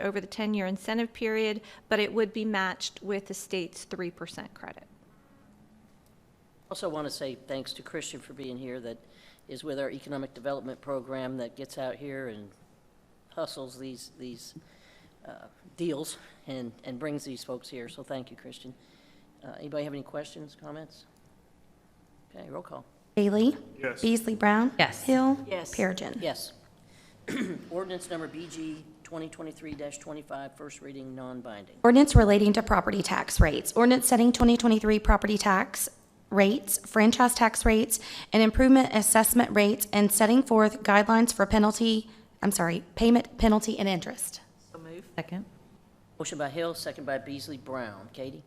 over the 10-year incentive period, but it would be matched with the state's 3% credit. Also want to say thanks to Christian for being here, that is with our economic development program that gets out here and hustles these, these uh, deals and, and brings these folks here, so thank you, Christian. Uh, Anybody have any questions, comments? Okay, roll call. Bailey? Yes. Beasley Brown? Yes. Hill? Yes. Perigin. Yes. Ordinance number BG 2023-25, first reading, non-binding. Ordinance relating to property tax rates. Ordinance setting 2023 property tax rates, franchise tax rates, and improvement assessment rates, and setting forth guidelines for penalty, I'm sorry, payment, penalty, and interest. Second. Motion by Hill, second by Beasley Brown. Katie?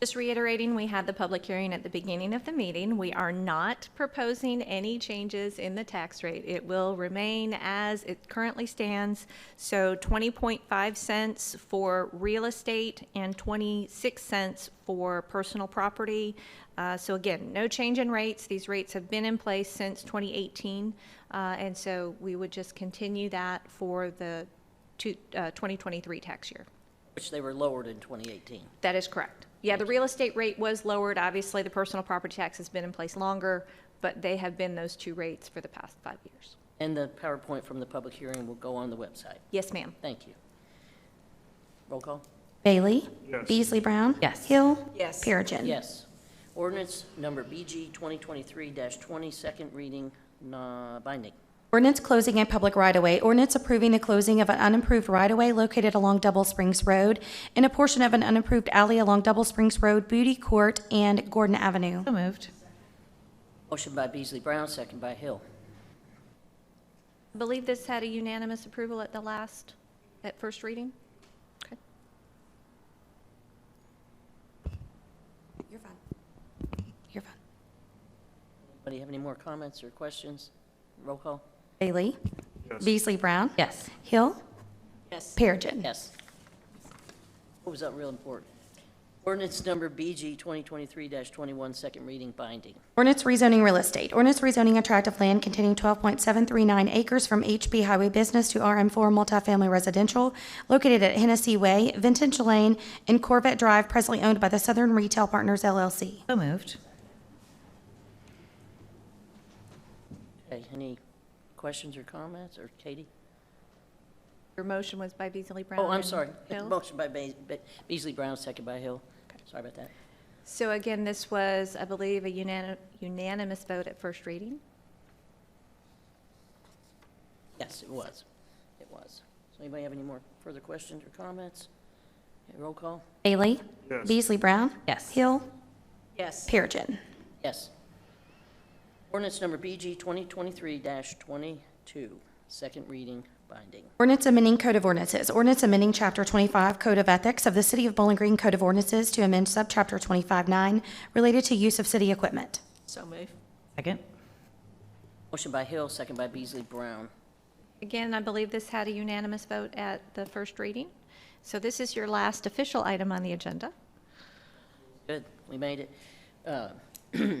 Just reiterating, we had the public hearing at the beginning of the meeting. We are not proposing any changes in the tax rate. It will remain as it currently stands, so 20.5 cents for real estate and 26 cents for personal property. Uh, So again, no change in rates. These rates have been in place since 2018, uh, and so we would just continue that for the two- uh, 2023 tax year. Which they were lowered in 2018. That is correct. Yeah, the real estate rate was lowered. Obviously, the personal property tax has been in place longer, but they have been those two rates for the past five years. And the PowerPoint from the public hearing will go on the website. Yes, ma'am. Thank you. Roll call? Bailey? Yes. Beasley Brown? Yes. Hill? Yes. Perigin. Yes. Ordinance number BG 2023-20, second reading, non- binding. Ordinance closing a public right-of-way. Ordinance approving the closing of an unimproved right-of-way located along Double Springs Road and a portion of an unimproved alley along Double Springs Road, Booty Court, and Gordon Avenue. So moved. Motion by Beasley Brown, second by Hill. I believe this had a unanimous approval at the last, at first reading? Okay. You're fine. You're fine. Anybody have any more comments or questions? Roll call? Bailey? Yes. Beasley Brown? Yes. Hill? Yes. Perigin. Yes. What was that real important? Ordinance number BG 2023-21, second reading, binding. Ordinance rezoning real estate. Ordinance rezoning a tract of land containing 12.739 acres from HB Highway Business to RM4 Multifamily Residential located at Hennessy Way, Vintage Lane, and Corvette Drive, presently owned by the Southern Retail Partners LLC. So moved. Okay, any questions or comments, or Katie? Your motion was by Beasley Brown. Oh, I'm and sorry. Hill? Motion by Ba- Ba- Beasley Brown, second by Hill. Sorry about that. So again, this was, I believe, a unani- unanimous vote at first reading? Yes, it was. It was. So anybody have any more further questions or comments? Okay, Roll call? Bailey? Yes. Beasley Brown? Yes. Hill? Yes. Perigin. Yes. Ordinance number BG 2023-22, second reading, binding. Ordinance amending Code of Ordinances. Ordinance amending Chapter 25 Code of Ethics of the City of Bowling Green Code of Ordinances to amend Subchapter 25-9 related to use of city equipment. So move. Second. Motion by Hill, second by Beasley Brown. Again, I believe this had a unanimous vote at the first reading. So this is your last official item on the agenda. Good, we made it. Uh,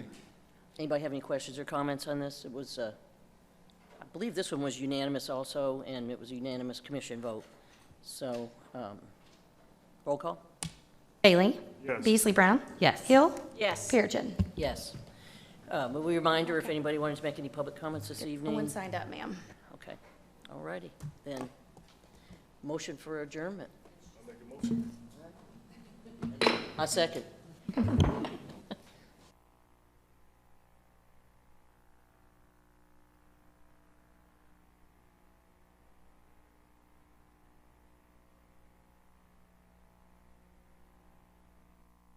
Anybody have any questions or comments on this? It was, uh, I believe this one was unanimous also, and it was a unanimous commission vote. So, um, roll call? Bailey? Yes. Beasley Brown? Yes. Hill? Yes. Perigin. Yes. Uh, Will we remind her if anybody wanted to make any public comments this No evening? one signed up, ma'am. Okay, all righty, then. Motion for adjournment. I'll make a motion. I second.